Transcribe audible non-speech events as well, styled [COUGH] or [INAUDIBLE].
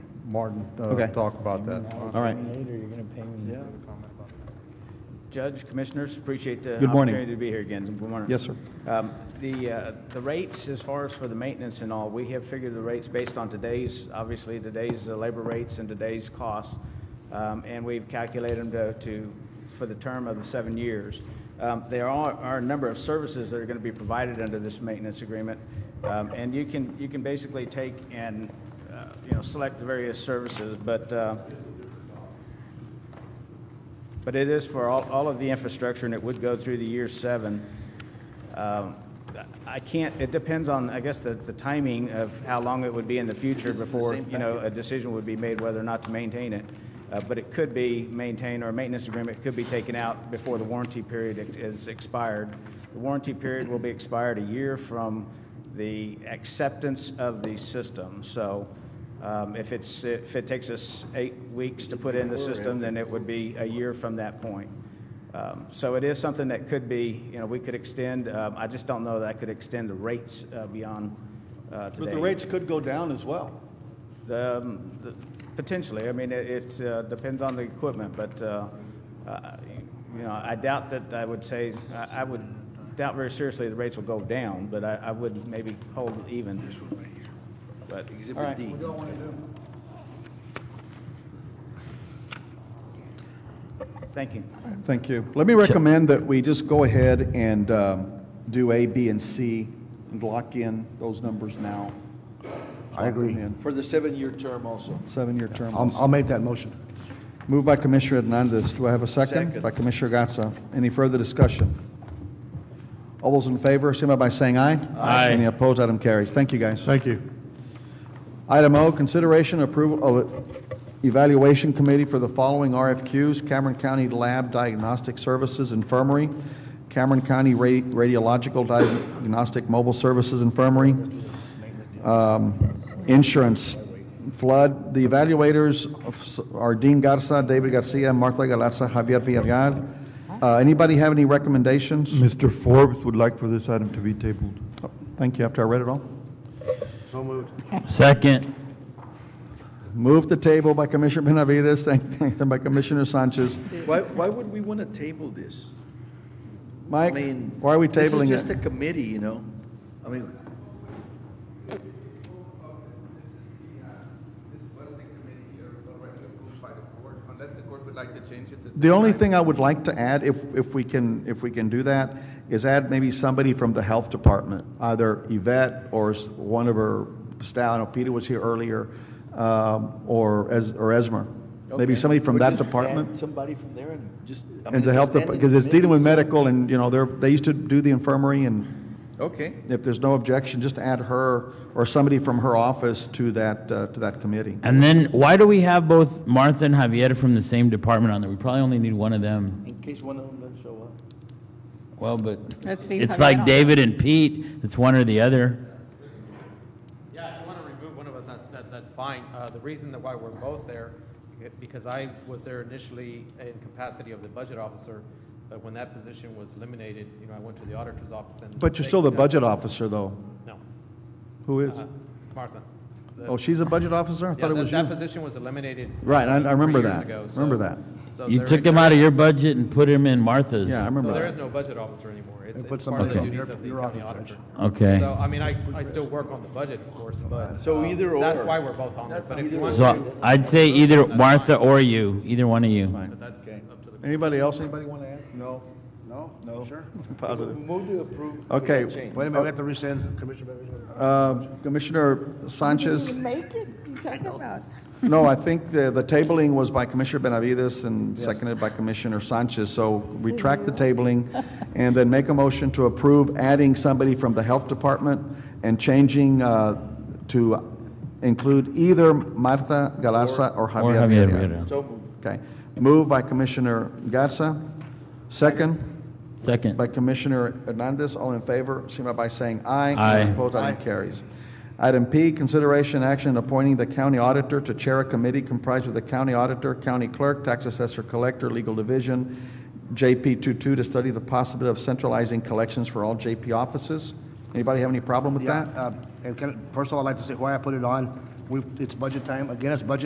Martin uh, Okay. talk about that. All right. Later, you're gonna pay me. Judge, commissioners, appreciate the Good morning. opportunity to be here again. Good morning. Yes, sir. Um, The, uh, the rates, as far as for the maintenance and all, we have figured the rates based on today's, obviously today's uh, labor rates and today's costs. Um, And we've calculated them to, to, for the term of the seven years. Um, There are, are a number of services that are going to be provided under this maintenance agreement. Um, And you can, you can basically take and, uh, you know, select the various services, but, uh, but it is for all, all of the infrastructure, and it would go through the year seven. Um, I can't, it depends on, I guess, the, the timing of how long it would be in the future before, you know, a decision would be made whether or not to maintain it. Uh, But it could be maintained, or a maintenance agreement could be taken out before the warranty period ex- is expired. The warranty period will be expired a year from the acceptance of the system. So um, if it's, if it takes us eight weeks to put in the system, then it would be a year from that point. Um, So it is something that could be, you know, we could extend. Um, I just don't know that I could extend the rates uh, beyond uh, today. But the rates could go down as well. The, um, the- Potentially. I mean, it- it uh, depends on the equipment, but, uh, uh, you know, I doubt that I would say, I- I would doubt very seriously the rates will go down, but I I would maybe hold even. But All Exhibit D. thank you. Thank you. Let me recommend that we just go ahead and um, do A, B, and C, and lock in those numbers now. I agree. Lock them in. For the seven-year term also. Seven-year term. I'll, I'll make that motion. Moved by Commissioner Hernandez. Do I have a second? Second. By Commissioner Gatsa. Any further discussion? All those in favor, signify by saying aye. Aye. Any opposed, item carries. Thank you, guys. Thank you. Item O, consideration approval of evaluation committee for the following RFQs: Cameron County Lab Diagnostic Services Infirmary, Cameron County Ra- Radiological Diagnostic Mobile Services Infirmary, um, Insurance, Flood. The evaluators of s- are Dean Garza, David Garcia, Martha Galarza, Javier Villarreal. Uh, Anybody have any recommendations? Mr. Forbes would like for this item to be tabled. Oh, Thank you, after I read it all. Second. Moved to table by Commissioner Benavides, seconded by Commissioner Sanchez. Why, why would we want to table this? I Mike, mean. why are we This is tabling just a it? committee, you know? I mean, was the committee uh, already approved by the court, unless the court would like to change it to The only thing I would like to add, if, if we can, if we can do that, is add maybe somebody from the health department, either Yvette or s- one of her staff, I know Peter was here earlier, um, or Es, or Esmer. Maybe okay. somebody from Or that just add department. Somebody from there and just. I mean, And the a health, standing because it's dealing with committee, medical and, you know, they're, they used to do the infirmary and so- Okay, if there's no objection, just add her or somebody from her office to that, uh, to that committee. And then, why do we have both Martha and Javier from the same department on there? We probably only need one of them. in case one of them doesn't show up. Well, but Let's leave it's Javier like on. David and Pete, it's one or the other. Yeah, if you want to remove one of us, that's, that, that's fine. Uh, the reason that why we're both there, eh, because I was there initially in capacity of the budget officer, but when that position was eliminated, you know, I went to the auditor's office and. But you're they- still the budget officer, though. No, Who is? uh, Martha. The- Oh, she's a budget officer? I Uh, Yeah, thought it that, was that you. position was eliminated. Right, I- I three remember years that. ago, so- Remember that. so You there- took him there out of is- your budget and put him in Martha's. Yeah, I So remember there is that. no budget officer anymore. It's, They put it's part of the somebody in duties your- of the your county office, auditor. Okay. So, I mean, I, I still work on the budget, of course, but. So um, either That's or. why we're both on there, but if you want to. So I'd say either Martha or you, either one of you. Anybody else, anybody want to add? No, no, no. [LAUGHS] Sure. Positive. Move to approve. with Okay. that change. Wait a minute, we have to rescind, Commissioner. Benavides. Uh, Commissioner Sanchez? Make it, you talking about. No, I think the, the tabling was by Commissioner Benavides and seconded by Commissioner Sanchez. So retract the tabling and then make a motion to approve adding somebody from the Health Department and changing uh, to include either Martha Galarza or Or Javier Javier Villarreal. Villarreal. So moved. Okay. Moved by Commissioner Garza, second. Second. By Commissioner Hernandez, all in favor, signify by saying aye. Aye. Any Opposed, item carries. Item P, consideration action appointing the county auditor to chair a committee comprised of the county auditor, county clerk, tax assessor, collector, legal division, JP 22, to study the possibility of centralizing collections for all JP offices. Anybody have any problem with Yeah, that? uh, and can, I- first of all, I'd like to say why I put it on. We've, it's budget time. Again, it's budget